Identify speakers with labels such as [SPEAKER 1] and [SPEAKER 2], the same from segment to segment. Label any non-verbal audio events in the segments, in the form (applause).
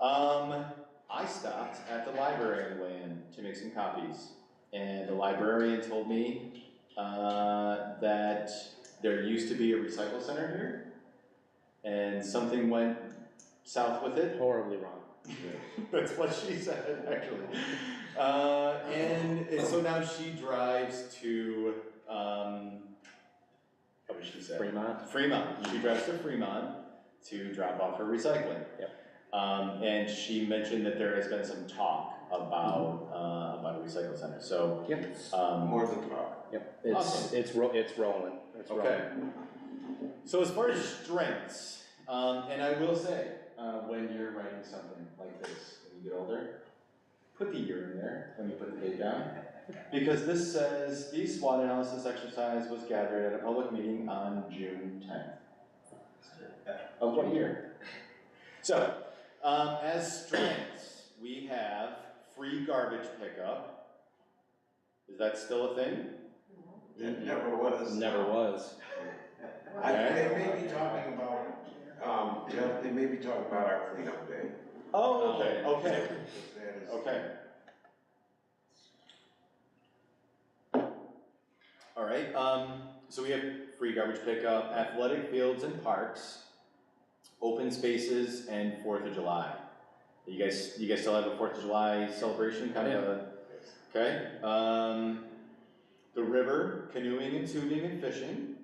[SPEAKER 1] Um, I stopped at the library on the way in to make some copies, and the librarian told me, uh, that there used to be a recycle center here, and something went south with it.
[SPEAKER 2] Horribly wrong.
[SPEAKER 1] (laughs) That's what she said, actually. Uh, and, and so now she drives to, um, what did she say?
[SPEAKER 2] Fremont.
[SPEAKER 1] Fremont. She drives to Fremont to drop off her recycling. Um, and she mentioned that there has been some talk about, uh, about a recycle center, so,
[SPEAKER 2] Yep.
[SPEAKER 1] um,
[SPEAKER 3] More than talk.
[SPEAKER 2] Yep. It's
[SPEAKER 1] Awesome.
[SPEAKER 2] it's ro- it's rolling. It's rolling.
[SPEAKER 1] okay. So as far as strengths, um, and I will say, uh, when you're writing something like this, when you get older, put the year in there when you put the date down. Because this says, the SWOT analysis exercise was gathered at a public meeting on June tenth. Of what year? So, um, as strengths, we have free garbage pickup. Is that still a thing?
[SPEAKER 3] It never was.
[SPEAKER 2] Never was.
[SPEAKER 3] I, they may be talking about, um, you know, they may be talking about our cleanup day.
[SPEAKER 1] Oh, okay,
[SPEAKER 2] Um,
[SPEAKER 1] okay,
[SPEAKER 3] Because that is-
[SPEAKER 1] okay. All right, um, so we have free garbage pickup, athletic fields and parks, open spaces and Fourth of July. You guys, you guys still have a Fourth of July celebration kind of a, okay? Um, the river, canoeing and tubing and fishing.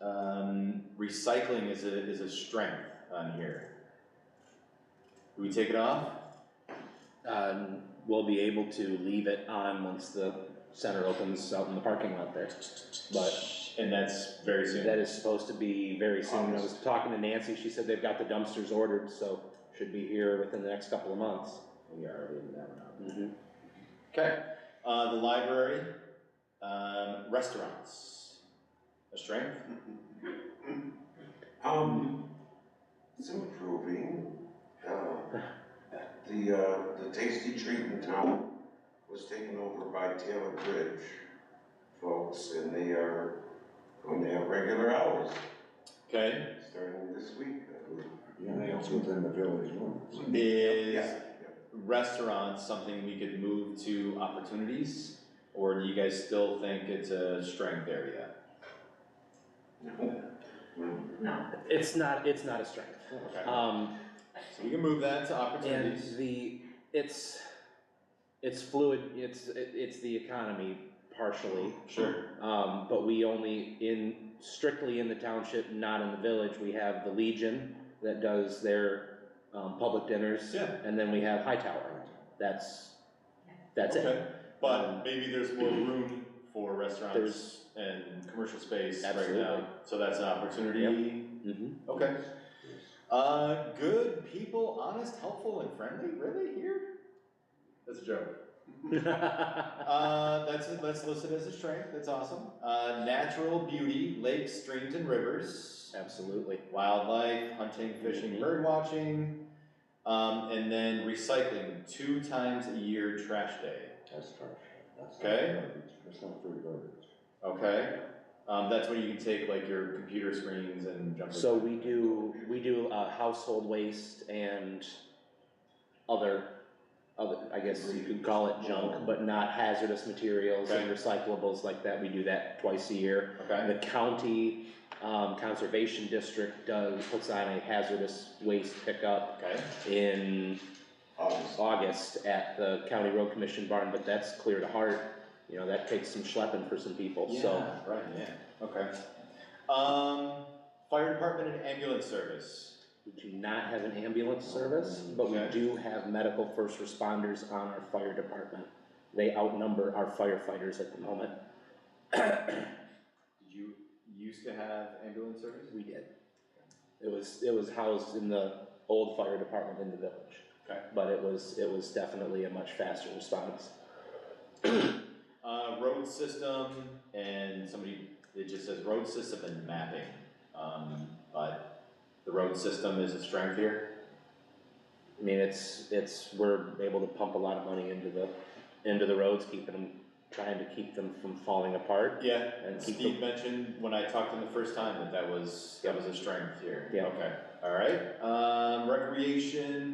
[SPEAKER 1] Um, recycling is a, is a strength on here. Do we take it off?
[SPEAKER 2] Um, we'll be able to leave it on once the center opens out in the parking lot there. But
[SPEAKER 1] And that's very soon.
[SPEAKER 2] that is supposed to be very soon. I was talking to Nancy. She said they've got the dumpsters ordered, so should be here within the next couple of months.
[SPEAKER 1] We are leaving that one out.
[SPEAKER 2] Mm-hmm.
[SPEAKER 1] Okay, uh, the library, um, restaurants, a strength?
[SPEAKER 3] Um, it's improving. Uh, The, uh, the tasty treat in town was taken over by Taylor Bridge folks, and they are going to have regular hours
[SPEAKER 1] Okay,
[SPEAKER 3] starting this week. I believe.
[SPEAKER 4] Yeah, that's within the village limits.
[SPEAKER 1] is
[SPEAKER 3] Yeah, yeah.
[SPEAKER 1] restaurants something we could move to opportunities? Or do you guys still think it's a strength area?
[SPEAKER 3] (laughs) Mm.
[SPEAKER 2] It's not. It's not a strength.
[SPEAKER 1] Okay,
[SPEAKER 2] Um,
[SPEAKER 1] Uh, so we can move that to
[SPEAKER 2] And
[SPEAKER 1] opportunities.
[SPEAKER 2] the, it's, it's fluid, it's, it- it's the economy partially,
[SPEAKER 1] Sure,
[SPEAKER 2] um, but we only in, strictly in the township, not in the village, we have the Legion that does their, um, public dinners.
[SPEAKER 1] Yeah.
[SPEAKER 2] And then we have Hightower, that's, that's it.
[SPEAKER 1] okay, but maybe there's more room for restaurants and commercial space right now,
[SPEAKER 2] Absolutely.
[SPEAKER 1] so that's an opportunity.
[SPEAKER 2] Mhm.
[SPEAKER 1] Okay. Uh, good people, honest, helpful, and friendly. Really here? That's a joke.
[SPEAKER 2] mm-hmm.
[SPEAKER 1] Uh, that's that's listed as a strength. That's awesome. Uh, natural beauty, lakes, streams, and rivers,
[SPEAKER 2] (laughs) Absolutely.
[SPEAKER 1] wildlife, hunting, fishing,
[SPEAKER 2] Mhm.
[SPEAKER 1] bird watching, um, and then recycling two times a year, trash day.
[SPEAKER 4] That's trash. That's not
[SPEAKER 1] Okay.
[SPEAKER 4] garbage. That's not free garbage.
[SPEAKER 1] Okay. Um, that's when you can take like your computer screens and jump.
[SPEAKER 2] So we do, we do, uh, household waste and other, other, I guess you could call it junk, but not hazardous materials and recyclables like that, we do that twice a year.
[SPEAKER 1] Okay.
[SPEAKER 2] And the county, um, conservation district does, puts on a hazardous waste pickup
[SPEAKER 1] Okay.
[SPEAKER 2] in
[SPEAKER 3] August.
[SPEAKER 2] August at the county road commission barn, but that's clear to heart. You know, that takes some schlepping for some people, so.
[SPEAKER 1] Yeah, right, yeah, okay. Um, fire department and ambulance service,
[SPEAKER 2] We do not have an ambulance service, but we
[SPEAKER 1] Okay.
[SPEAKER 2] do have medical first responders on our fire department. They outnumber our firefighters at the moment.
[SPEAKER 1] did you used to have ambulance service?
[SPEAKER 2] We did. It was, it was housed in the old fire department in the village.
[SPEAKER 1] Okay.
[SPEAKER 2] But it was, it was definitely a much faster response.
[SPEAKER 1] Uh, road system and somebody, it just says road system and mapping, um, but the road system is a strength here.
[SPEAKER 2] I mean, it's, it's, we're able to pump a lot of money into the, into the roads, keeping them, trying to keep them from falling apart
[SPEAKER 1] Yeah,
[SPEAKER 2] and keep
[SPEAKER 1] Steve
[SPEAKER 2] them.
[SPEAKER 1] mentioned when I talked to him the first time that that was, that was a strength here.
[SPEAKER 2] Yeah.
[SPEAKER 1] Okay, all right, um, recreation,